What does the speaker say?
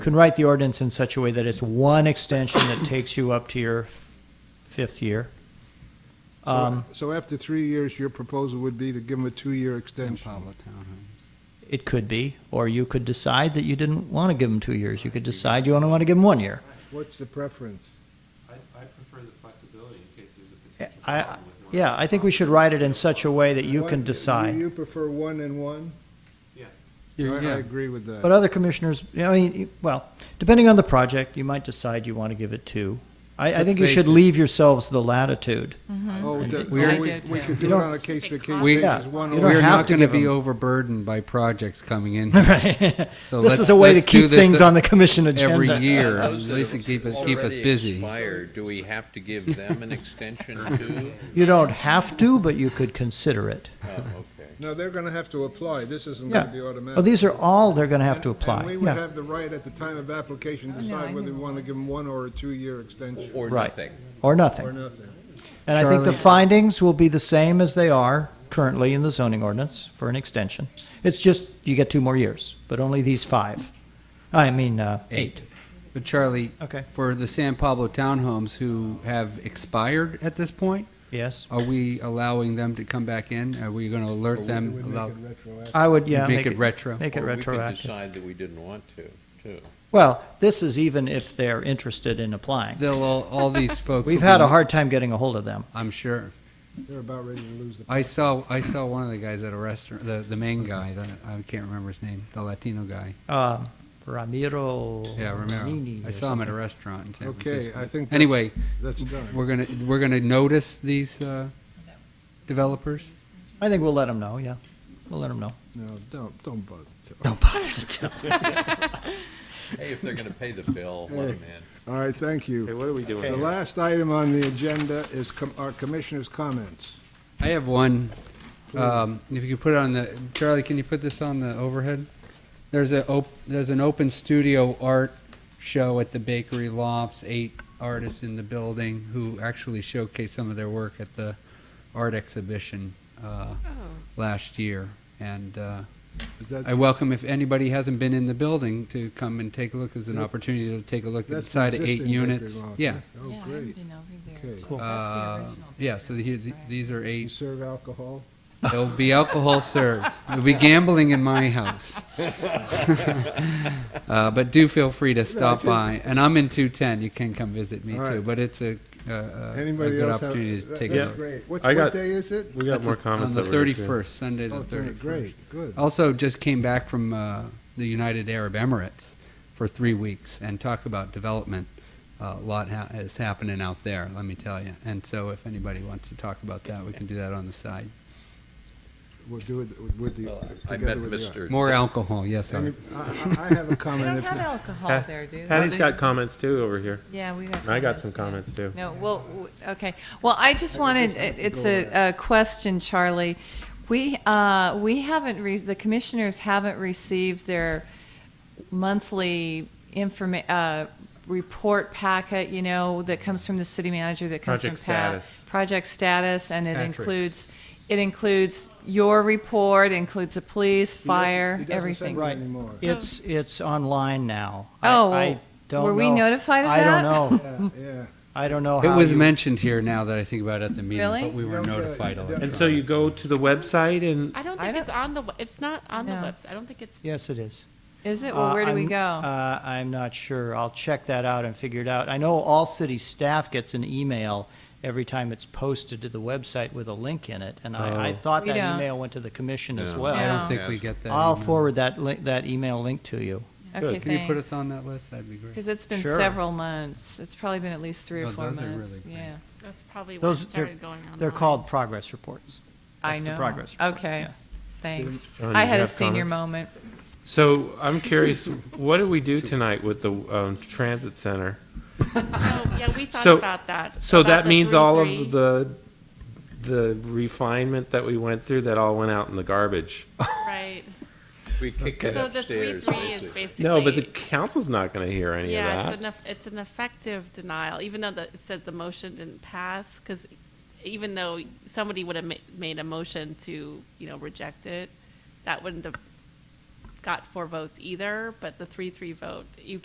can write the ordinance in such a way that it's one extension that takes you up to your f- fifth year. So- Um, So after three years, your proposal would be to give them a two-year San extension? Pablo Townhomes. It could be, or you could decide that you didn't want to give them two years. You could decide you only want to give them one year. What's the preference? I, I prefer the flexibility in case there's a potential I- problem with one. Yeah, I think we should write it in such a way that you One- can decide. You prefer one and one? I Yeah, I yeah. agree with that. But other commissioners, you know, I mean, well, depending on the project, you might decide you want to give it two. I, I Let's think you face should it. leave yourselves the latitude. Oh, that- We're- oh, I we, do we too. could You do it don't- on a case-by-case We- basis, one You or, don't We're have not to going to give be them- overburdened by projects coming in. Right. So This let's- is a way to let's do keep this things on the commission agenda. Every year, at Those that least to have keep us, keep us already busy. expired, do we have to give them an extension too? You don't have to, but you could consider it. Oh, okay. no, they're going to have to apply. This isn't Yeah. going to be automatic. Well, these are all they're going to have And- to And apply. we would Yeah, have the right at the time of application to no, I decide whether know. we want to give them one or a two-year extension, Or Right. nothing. or or nothing. nothing. And I think the Charlie? findings will be the same as they are currently in the zoning ordinance for an extension. It's just you get two more years, but only these five. I mean, uh, eight. But Charlie, Okay. for the San Pablo Townhomes who have expired at this point, Yes. are we allowing them to come back in? Are we going to alert them? allow- I would, yeah. Make it retro? Make it Or We could retroactive. decide that we didn't want to, too. Well, this is even if they're interested in applying. They'll, all all these folks. We've will had be- a hard time getting a hold of them. I'm sure. They're about ready to lose the. I saw, I saw one of the guys at a restaurant, the, the main guy, the, I can't remember his name, the Latino guy. Um, Ramiro. Yeah, Nini Romero. I or saw him at a something. restaurant in San Okay, Francisco. I think. that's- Anyway, That's done. We're gonna, we're gonna notice these uh, developers? I think we'll let them know, yeah. We'll let them know. No, don't, don't bother. Hey, if they're going to pay the bill, oh, let them in. All right, thank you. Hey, what are we doing? The here? last item on the agenda is com- our commissioners' comments. I have one. Um, If you could put it on the, Charlie, can you put this on the overhead? There's a, op- there's an open studio art show at the Bakery Lofts, eight artists in the building who actually showcased some of their work at the art exhibition uh, last year. And uh, Is that- I welcome if anybody hasn't been in the building to come and take a look. There's an Yep. opportunity to take a look That's the inside of eight existing units. Bakery Loft, Yeah. Oh, Yeah, I haven't great. been over there. Okay. Cool. That's the Uh, original Yeah, picture, so here's, right. these are You eight. serve alcohol? There'll be alcohol served. There'll be gambling in my house. uh, but do feel free to stop by. And I'm in 210. You can come visit me All right. too. But it's a, a, a, a Anybody good else have? opportunity to that- take a That's look. great. What, I what got- day is it? We got That's more a- comments on that the we're gonna do. 31st, Sunday the Oh, 31st. great, good. Also, just came back from uh, the United Arab Emirates for three weeks, and talk about development. Uh, a lot ha- is happening out there, let me tell you. And so, if anybody wants to talk about that, we can do that on the side. We'll do it with the, Well, I met together with the. Mr. More alcohol, yes. Any- Art. I, I I have a They comment. don't if have not- alcohol there, do they? Patty's got comments too over here. Yeah, we got. I got some comments, comments too. yeah. No, well, w- okay. Well, I just wanted, it- it's a, a question, Charlie. We, uh, we haven't, re- the commissioners haven't received their monthly informa, uh, report packet, you know, that comes from the city manager, that comes from Project Pat. status. Project status, and it Patrick's. includes, it includes your report, includes the police, He doesn't- fire, he doesn't everything. send it Right. anymore. It's, it's online now. I- Oh, I don't were we know. notified of I that? don't know. Yeah, yeah. I don't know It how was you, mentioned here now that I think about it at the meeting, Really? but we were Don't get it. notified. Don't- electronically. And so you go to the website and I don't I think it's on the, we- it's not on the No. website. I don't think it's, yes, it is. Is it? Well, Uh, where do we I'm- go? Uh, I'm not sure. I'll check that out and figure it out. I know all city staff gets an email every time it's posted to the website with a link in it, and I, I Oh. thought We that don't. email went to the commission as No. well. I Yeah. don't think we get that. I'll email. forward that link, that email link to you. Okay, Can you put us thanks. on that list? That'd be great. Because it's been Sure. several months. It's probably been at least three or Oh, four those are months. really Yeah, that's probably when it Those, they're, started going on. they're called progress reports. I That's the know. progress report, Okay, yeah. thanks. Um, I you had a have senior comments? moment. so I'm curious, what do we do tonight with the um, transit center? Oh, Yeah, we thought So- about that. So about that the means all of 3-3. the the refinement that we went through that all went out in the garbage. Right. We kicked it So the three, upstairs. three is basically. basically. No, but the council's not going to hear any Yeah, of that. it's an, eff- it's an effective denial, even though the, it said the motion didn't pass, because even though somebody would have ma- made a motion to, you know, reject it, that wouldn't have got four votes either, but the three, three vote, you